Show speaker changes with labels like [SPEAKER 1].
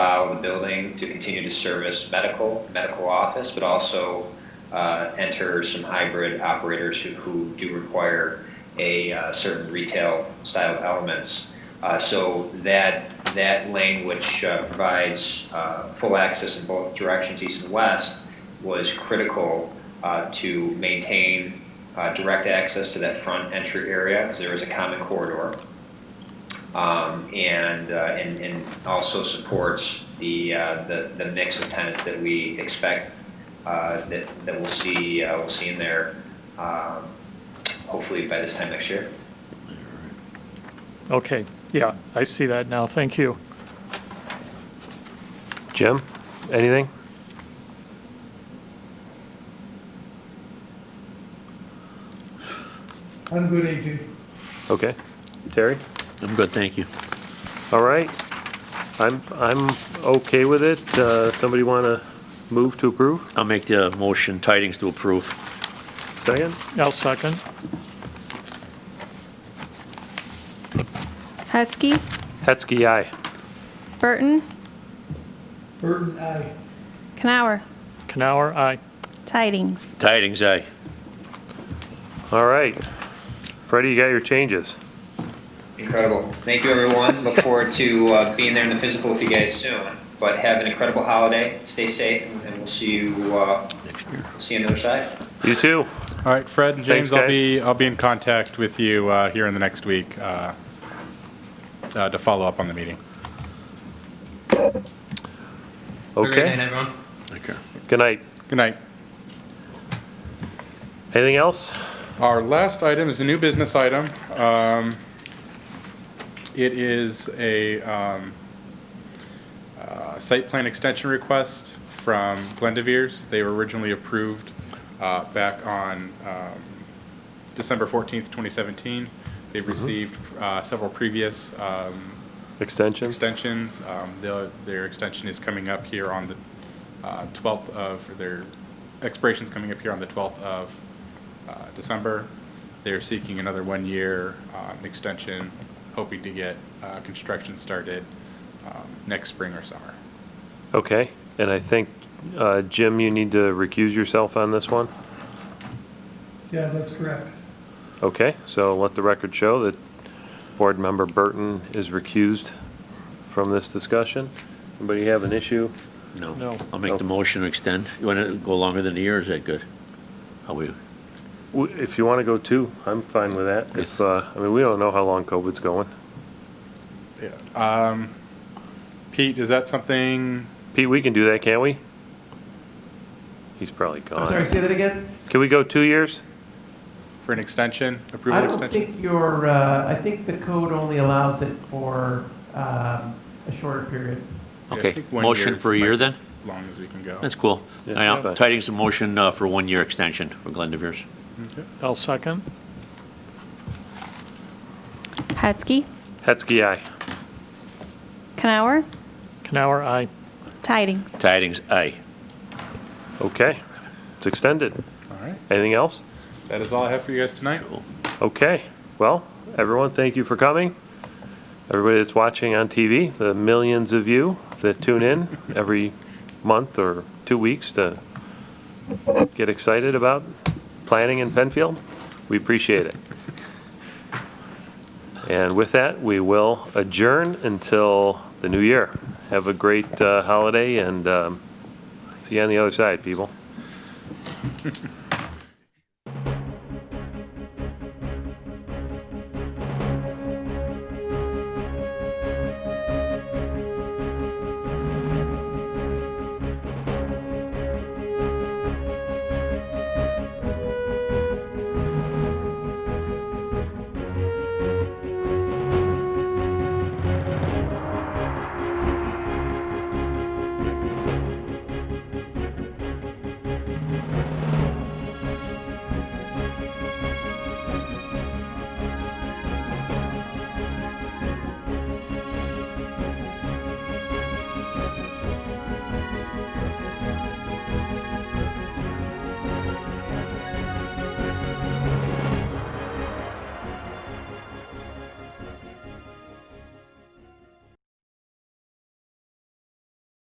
[SPEAKER 1] allow the building to continue to service medical, medical office, but also uh, enter some hybrid operators who, who do require a uh, certain retail style elements. Uh, So that, that lane which uh, provides uh, full access in both directions, east and west, was critical uh, to maintain uh, direct access to that front entry area, because there is a common corridor. Um, And, uh, and and also supports the, uh, the the mix of tenants that we expect, uh, that, that we'll see, uh, we'll see in there, um, hopefully by this time next year.
[SPEAKER 2] Okay, yeah, I see that now. Thank you.
[SPEAKER 3] Jim, anything?
[SPEAKER 4] I'm good, AJ.
[SPEAKER 3] Okay. Terry?
[SPEAKER 5] I'm good, thank you.
[SPEAKER 3] All right. I'm, I'm okay with it. Uh, Somebody want to move to approve?
[SPEAKER 5] I'll make the motion tidings to approve.
[SPEAKER 3] Second?
[SPEAKER 2] I'll second.
[SPEAKER 6] Hetzke,
[SPEAKER 3] Hetzke, aye.
[SPEAKER 6] Burton,
[SPEAKER 4] Burton, aye.
[SPEAKER 6] Canower,
[SPEAKER 2] Canower, aye.
[SPEAKER 6] Tidings.
[SPEAKER 5] Tidings, aye.
[SPEAKER 3] All right. Freddie, you got your changes.
[SPEAKER 1] Incredible. Thank you, everyone. Look forward to uh, being there in the physical with you guys soon. But have an incredible holiday. Stay safe, and- and we'll see you. Uh, see you on the other side.
[SPEAKER 3] You too.
[SPEAKER 7] All right, Fred and James,
[SPEAKER 3] Thanks,
[SPEAKER 7] I'll
[SPEAKER 3] guys.
[SPEAKER 7] be I'll be in contact with you uh, here in the next week uh, uh, to follow up on the meeting.
[SPEAKER 3] Okay.
[SPEAKER 8] everyone.
[SPEAKER 5] Okay.
[SPEAKER 3] Good night.
[SPEAKER 7] Good night.
[SPEAKER 3] Anything else?
[SPEAKER 7] Our last item is a new business item. Um, It is a um, uh, site plan extension request from Glendevere's. They were originally approved uh, back on um, December 14th, 2017. They've received uh, several previous um,
[SPEAKER 3] Extension?
[SPEAKER 7] extensions. Um, the- Their extension is coming up here on the uh, 12th of, or their expiration's coming up here on the 12th of uh, December. They're seeking another one-year um, extension, hoping to get uh, construction started um, next spring or summer.
[SPEAKER 3] Okay. And I think, uh, Jim, you need to recuse yourself on this one?
[SPEAKER 4] Yeah, that's correct.
[SPEAKER 3] Okay, so let the record show that Board Member Burton is recused from this discussion. Anybody have an issue?
[SPEAKER 2] No.
[SPEAKER 5] No, I'll make the motion to extend. You want to go longer than a year, is that good? Are we,
[SPEAKER 3] W- If you want to go two, I'm fine with that. If, uh, I mean, we don't know how long COVID's going.
[SPEAKER 7] Um, Pete, is that something,
[SPEAKER 3] Pete, we can do that, can't we? He's probably
[SPEAKER 7] Oh,
[SPEAKER 4] I'm sorry,
[SPEAKER 3] gone.
[SPEAKER 4] say that again?
[SPEAKER 3] Can we go two years?
[SPEAKER 7] for an extension,
[SPEAKER 9] I
[SPEAKER 7] approval
[SPEAKER 9] don't
[SPEAKER 7] extension?
[SPEAKER 9] think your, uh, I think the code only allows it for um, a shorter period.
[SPEAKER 7] Yeah, I
[SPEAKER 5] okay,
[SPEAKER 7] think one
[SPEAKER 5] motion
[SPEAKER 7] is
[SPEAKER 5] for a year
[SPEAKER 7] like
[SPEAKER 5] then?
[SPEAKER 7] as Long as we can go.
[SPEAKER 5] That's cool.
[SPEAKER 3] Yeah.
[SPEAKER 5] Now,
[SPEAKER 3] Okay.
[SPEAKER 5] Tidings a motion uh, for one-year extension for Glendivere's.
[SPEAKER 2] I'll second.
[SPEAKER 6] Hetzke,
[SPEAKER 3] Hetzke, aye.
[SPEAKER 6] Canower,
[SPEAKER 2] Canower, aye.
[SPEAKER 6] Tidings.
[SPEAKER 5] Tidings, aye.
[SPEAKER 3] Okay, it's extended.
[SPEAKER 7] All right,
[SPEAKER 3] Anything else?
[SPEAKER 7] that is all I have for you guys tonight.
[SPEAKER 3] Okay, well, everyone, thank you for coming. Everybody that's watching on TV, the millions of you that tune in every month or two weeks to get excited about planning in Penfield, we appreciate it. And with that, we will adjourn until the new year. Have a great uh, holiday and um, see you on the other side, people.